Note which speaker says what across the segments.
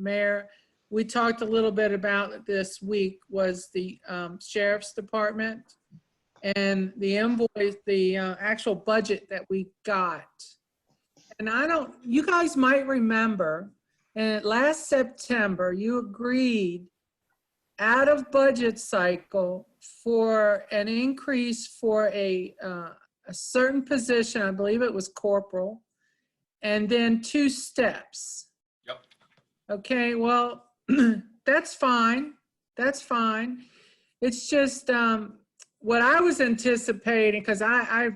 Speaker 1: Mayor, we talked a little bit about this week was the um, sheriff's department and the invoice, the uh, actual budget that we got. And I don't, you guys might remember, and last September, you agreed out of budget cycle for an increase for a, uh, a certain position, I believe it was corporal, and then two steps.
Speaker 2: Yep.
Speaker 1: Okay, well, that's fine, that's fine. It's just, um, what I was anticipating, because I, I,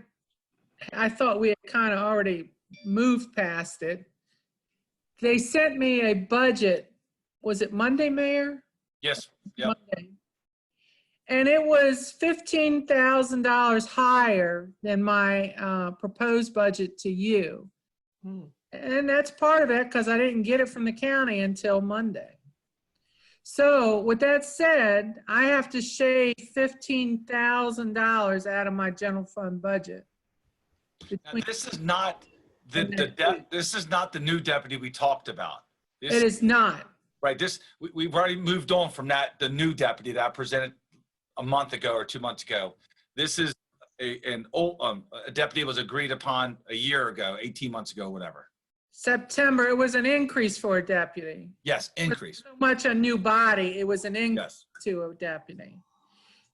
Speaker 1: I thought we had kind of already moved past it. They sent me a budget, was it Monday, Mayor?
Speaker 2: Yes, Yep.
Speaker 1: Monday. And it was fifteen thousand dollars higher than my uh, proposed budget to you. And that's part of it because I didn't get it from the county until Monday. So with that said, I have to shave fifteen thousand dollars out of my general fund budget.
Speaker 2: Now,
Speaker 1: Between-
Speaker 2: this is not the, the, de- this is not the new deputy we talked about.
Speaker 1: It
Speaker 2: This,
Speaker 1: is not.
Speaker 2: right, this, we, we've already moved on from that, the new deputy that I presented a month ago or two months ago. This is a, an old, um, a deputy was agreed upon a year ago, 18 months ago, whatever.
Speaker 1: September, it was an increase for a deputy.
Speaker 2: Yes, increase,
Speaker 1: So much a new body, it was an increase.
Speaker 2: yes.
Speaker 1: to a deputy.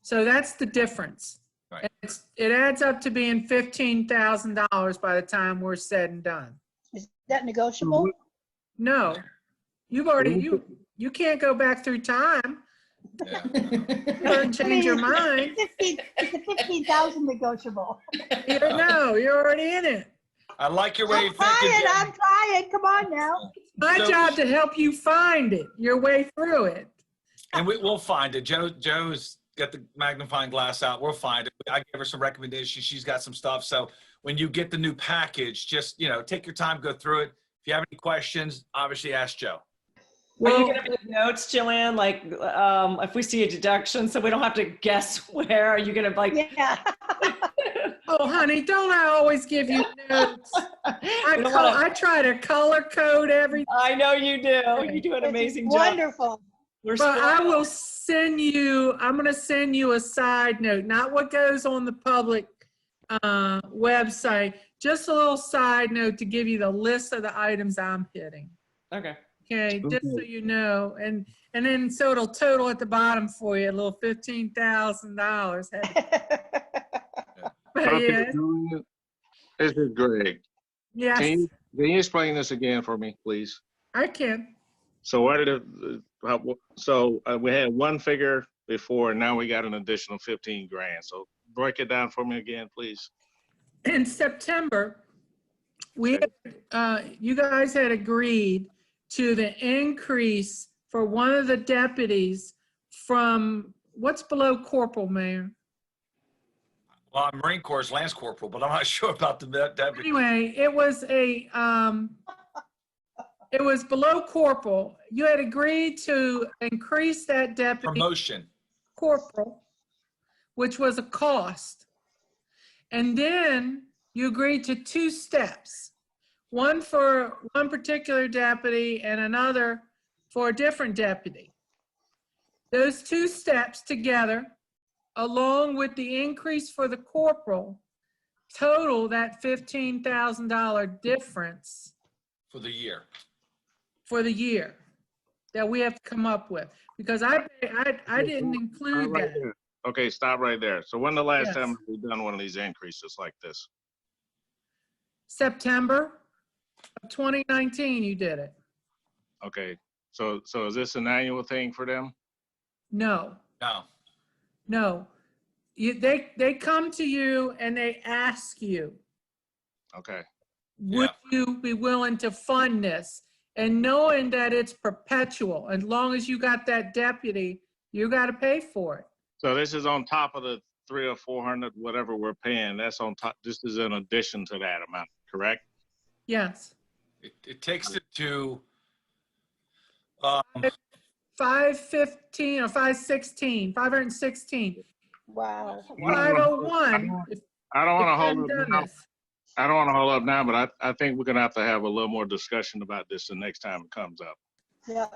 Speaker 1: So that's the difference.
Speaker 2: Right.
Speaker 1: And it's- It adds up to being fifteen thousand dollars by the time we're said and done.
Speaker 3: Is that negotiable?
Speaker 1: No, you've already, you, you can't go back through time
Speaker 2: yeah.
Speaker 1: and change your mind.
Speaker 3: Fifteen, is the fifteen thousand negotiable?
Speaker 1: You don't know, you're already in it.
Speaker 2: I like your way
Speaker 3: I'm
Speaker 2: of thinking.
Speaker 3: trying,
Speaker 2: Jim.
Speaker 3: I'm trying, come on now.
Speaker 1: My
Speaker 2: So-
Speaker 1: job to help you find it, your way through it.
Speaker 2: And we, we'll find it. Joe, Joe's got the magnifying glass out. We'll find it. I gave her some recommendations. She's got some stuff. So when you get the new package, just, you know, take your time, go through it. If you have any questions, obviously ask Joe.
Speaker 4: Are you
Speaker 1: Well,
Speaker 4: gonna put notes, Joanne? Like, um, if we see a deduction, so we don't have to guess where, are you gonna like?
Speaker 3: Yeah,
Speaker 1: oh honey, don't I always give you notes? I,
Speaker 4: we don't
Speaker 1: col-
Speaker 4: wanna-
Speaker 1: I try to color code everything.
Speaker 4: I know you do. You do an
Speaker 3: this is
Speaker 4: amazing job.
Speaker 3: Wonderful.
Speaker 4: We're
Speaker 1: But I
Speaker 4: spoiled.
Speaker 1: will send you, I'm going to send you a side note, not what goes on the public uh, website, just a little side note to give you the list of the items I'm hitting.
Speaker 4: Okay,
Speaker 1: Okay, just so you know, and, and then so it'll total at the bottom for you, a little fifteen thousand dollars. But
Speaker 5: Okay,
Speaker 1: yeah,
Speaker 5: Julia, This is Greg. Can
Speaker 1: yes,
Speaker 5: you, can you explain this again for me, please?
Speaker 1: I can.
Speaker 5: So what did, it- how- so uh, we had one figure before and now we got an additional 15 grand. So break it down for me again, please.
Speaker 1: in September, we, uh, you guys had agreed to the increase for one of the deputies from, what's below corporal, Mayor?
Speaker 2: Well, I'm Marine Corps Lance Corporal, but I'm not sure about the de- deputy.
Speaker 1: Anyway, it was a, um, it was below corporal. You had agreed to increase that deputy
Speaker 2: Promotion.
Speaker 1: corporal, which was a cost. And then you agreed to two steps, one for one particular deputy and another for a different deputy. Those two steps together, along with the increase for the corporal, total that $15,000 difference
Speaker 2: for the year.
Speaker 1: for the year that we have to come up with, because I, I, I didn't
Speaker 5: Stop
Speaker 1: include
Speaker 5: right
Speaker 1: that.
Speaker 5: there. Okay, stop right there. So when the last
Speaker 1: Yes.
Speaker 5: time have we done one of these increases like this?
Speaker 1: September of 2019, you did it.
Speaker 5: Okay, so, so is this an annual thing for them?
Speaker 1: No,
Speaker 2: No.
Speaker 1: no. You, they, they come to you and they ask you,
Speaker 5: Okay,
Speaker 1: would you be willing to fund this? And knowing that it's perpetual, as long as you got that deputy, you got to pay for it.
Speaker 5: so this is on top of the three or 400, whatever we're paying. That's on top, this is in addition to that amount, correct?
Speaker 1: Yes.
Speaker 2: It, it takes it to, um,
Speaker 1: 515 or 516, 516,
Speaker 3: Wow.
Speaker 5: I don't wanna-
Speaker 1: 501. if-
Speaker 5: I don't want to
Speaker 1: if
Speaker 5: hold
Speaker 1: I'm
Speaker 5: up
Speaker 1: done
Speaker 5: now.
Speaker 1: this.
Speaker 5: I don't want to hold up now, but I, I think we're gonna have to have a little more discussion about this the next time it comes up.
Speaker 3: Yeah.